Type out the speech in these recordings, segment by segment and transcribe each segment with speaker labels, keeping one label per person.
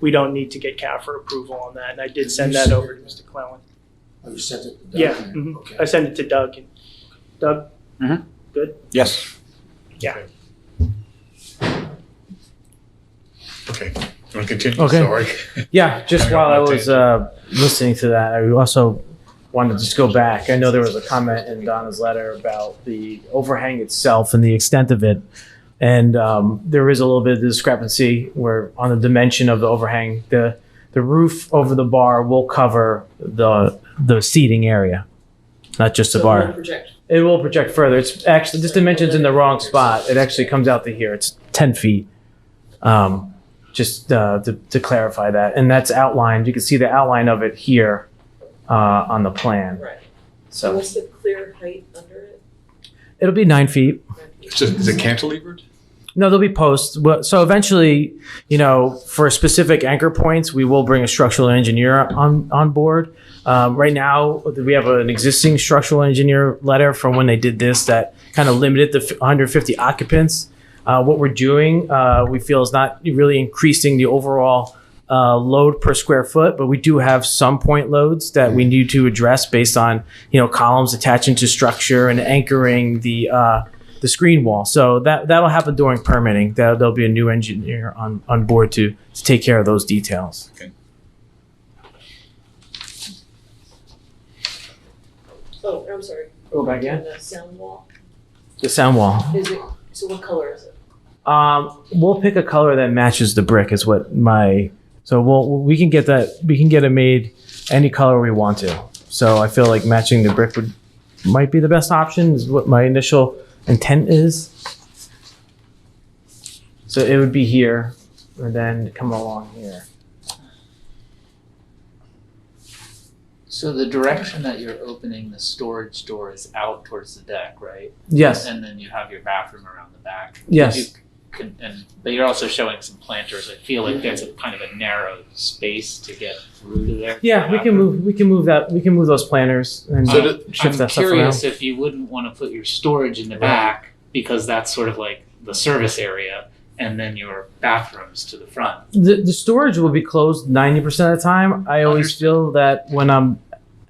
Speaker 1: we don't need to get CAFR approval on that, and I did send that over to Mr. Clellon.
Speaker 2: Oh, you sent it? to Doug?
Speaker 1: Yeah, mhm.
Speaker 2: Okay.
Speaker 1: I sent it to Doug, and Doug,
Speaker 3: Yes.
Speaker 4: Okay, want to continue?
Speaker 5: Okay.
Speaker 4: Sorry.
Speaker 5: Yeah, just
Speaker 4: Hang
Speaker 5: while
Speaker 4: on,
Speaker 5: I
Speaker 4: I'll take
Speaker 5: was uh, listening to that, I also wanted to just go back. I know there was a comment in Donna's letter about the overhang itself and the extent of it. And um, there is a little bit of discrepancy where on the dimension of the overhang, the the roof over the bar will cover the the seating area, not just the
Speaker 6: So
Speaker 5: bar.
Speaker 6: we'll project.
Speaker 5: It will project further. It's actually this dimension's in the wrong spot. It actually comes out to here. It's ten feet. Um, just uh, to, to clarify that, and that's outlined. You can see the outline of it here uh, on the plan.
Speaker 6: Right. So
Speaker 5: So
Speaker 6: what's the clear height under it?
Speaker 5: it'll be nine feet.
Speaker 4: It's just, is it cantilevered?
Speaker 5: No, there'll be posts. Well, So eventually, you know, for specific anchor points, we will bring a structural engineer on on board. Um, right now, we have an existing structural engineer letter from when they did this that kind of limited the f- 150 occupants. Uh, what we're doing, uh, we feel, is not really increasing the overall uh, load per square foot, but we do have some point loads that we need to address based on you know columns attaching to structure and anchoring the. Uh, the screen wall. So that that'll happen during permitting. That there'll be a new engineer on on board to to take care of those details.
Speaker 6: Oh, I'm sorry.
Speaker 5: Go back
Speaker 6: And the sound wall,
Speaker 5: The sound wall.
Speaker 6: is it, so what color is it?
Speaker 5: Um, we'll pick a color that matches the brick. Is what my so we'll we can get that we can get it made any color we want to. So I feel like matching the brick would might be the best option. Is what my initial intent is. So it would be here, and then come along here.
Speaker 7: So the direction that you're opening the storage door is out towards the deck, right?
Speaker 5: Yes.
Speaker 7: And then you have your bathroom around the back.
Speaker 5: Yes.
Speaker 7: You can, and but you're also showing some planters. I feel like there's a kind of a narrow space to get through to there.
Speaker 5: Yeah, we can move. We can move that. We can move those planners and
Speaker 7: So th-
Speaker 5: shift
Speaker 7: I'm
Speaker 5: that stuff around.
Speaker 7: curious if you wouldn't want to put your storage in the back because that's sort of like the service area, and then your bathrooms to the front.
Speaker 5: The, the storage will be closed ninety percent of the time. I always feel that when I'm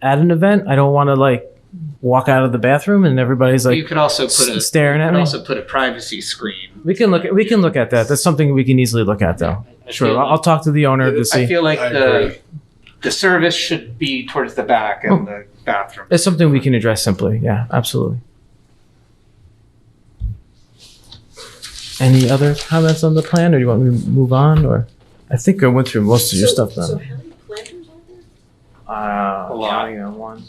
Speaker 5: at an event, I don't want to like walk out of the bathroom and everybody's like
Speaker 7: you could also put a
Speaker 5: s- staring
Speaker 7: you
Speaker 5: at
Speaker 7: could
Speaker 5: me.
Speaker 7: also put a privacy screen.
Speaker 5: we can look. At, we can look at that. That's something we can easily look at, though.
Speaker 7: I- I
Speaker 5: Sure,
Speaker 7: feel
Speaker 5: I'll, I'll talk to the owner to
Speaker 7: I
Speaker 5: see.
Speaker 7: feel like
Speaker 4: I
Speaker 7: the
Speaker 5: uh,
Speaker 4: agree.
Speaker 7: the service should be towards the back and the bathroom.
Speaker 5: Oh. It's something we can address simply. Yeah, absolutely. Any other comments on the plan, or do you want me to move on? Or I think I went through most of your
Speaker 6: So-
Speaker 5: stuff now.
Speaker 6: So how many planters are there?
Speaker 5: Uh,
Speaker 7: A lot.
Speaker 5: counting on one.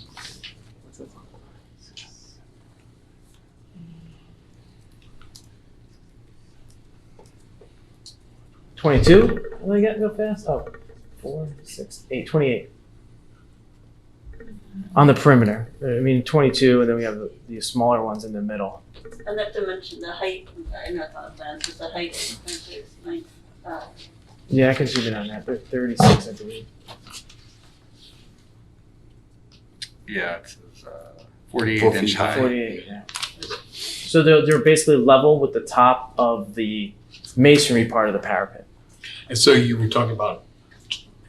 Speaker 5: Twenty-two. Am I getting go fast? Oh, four, six, eight, twenty-eight. On the perimeter. Uh, I mean, twenty-two, and then we have the, the smaller ones in the middle.
Speaker 8: I'd like to mention the height, I'm sorry, not the plans, but the height of the fence is nine, uh,
Speaker 5: Yeah, I can zoom in on that. They're thirty-six, I believe.
Speaker 4: Yeah, it's, uh, forty-eight
Speaker 3: Four
Speaker 4: inch
Speaker 3: feet.
Speaker 4: high.
Speaker 5: Forty-eight. Yeah. So they're they're basically level with the top of the masonry part of the parapet.
Speaker 4: And so you were talking about,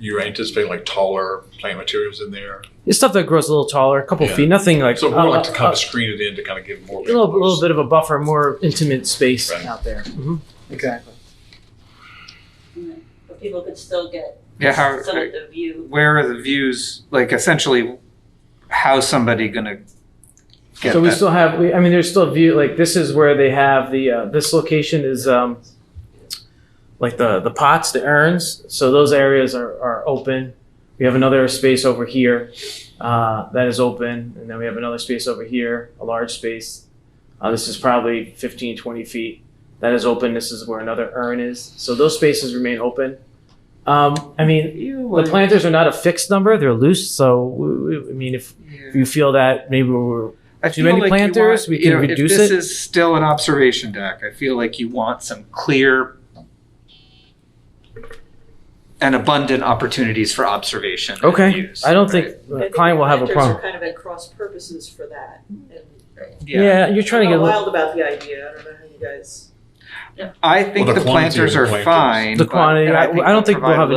Speaker 4: you anticipate like taller plant materials in there?
Speaker 5: It's stuff that grows a little taller, a couple
Speaker 4: Yeah.
Speaker 5: feet, nothing like,
Speaker 4: So
Speaker 5: uh,
Speaker 4: more like to kind
Speaker 5: uh,
Speaker 4: of screen it in to kind of give more.
Speaker 5: a little, little bit of a buffer, more intimate space
Speaker 4: Right.
Speaker 5: out there. Mm-hmm. Exactly.
Speaker 8: but people could still get
Speaker 7: Yeah, how,
Speaker 8: some of the view.
Speaker 7: where are the views? Like essentially, how's somebody gonna get
Speaker 5: so we
Speaker 7: that?
Speaker 5: still have, we, I mean, there's still view. Like this is where they have the uh, this location is um, like the the pots, the urns. So those areas are are open. We have another space over here uh, that is open, and then we have another space over here, a large space. Uh, this is probably 15, 20 feet. That is open. This is where another urn is. So those spaces remain open. Um, I mean,
Speaker 7: You
Speaker 5: the planters are not a fixed number; they're loose. So, we, we, I mean, if you feel that maybe we're
Speaker 7: I feel
Speaker 5: too many
Speaker 7: like you
Speaker 5: planters,
Speaker 7: want-
Speaker 5: we
Speaker 7: you
Speaker 5: can
Speaker 7: know,
Speaker 5: reduce
Speaker 7: if this
Speaker 5: it.
Speaker 7: is still an observation deck. I feel like you want some clear and abundant opportunities for observation. and
Speaker 5: Okay.
Speaker 7: use,
Speaker 5: I don't
Speaker 7: right?
Speaker 5: think
Speaker 6: I
Speaker 5: the
Speaker 6: think
Speaker 5: client will have a
Speaker 6: planters
Speaker 5: problem.
Speaker 6: are kind of at cross purposes for that. And
Speaker 5: Yeah. you're trying to get
Speaker 6: I'm
Speaker 5: a
Speaker 6: not
Speaker 5: little,
Speaker 6: wild about the idea, I don't know how you guys.
Speaker 7: I think
Speaker 4: Well, the
Speaker 7: the planters
Speaker 4: quantity
Speaker 7: are
Speaker 4: of the planters.
Speaker 7: fine.
Speaker 5: The
Speaker 7: but-
Speaker 5: quantity,
Speaker 7: and
Speaker 5: I- I don't
Speaker 7: they'll
Speaker 5: think we'll
Speaker 7: provide
Speaker 5: have an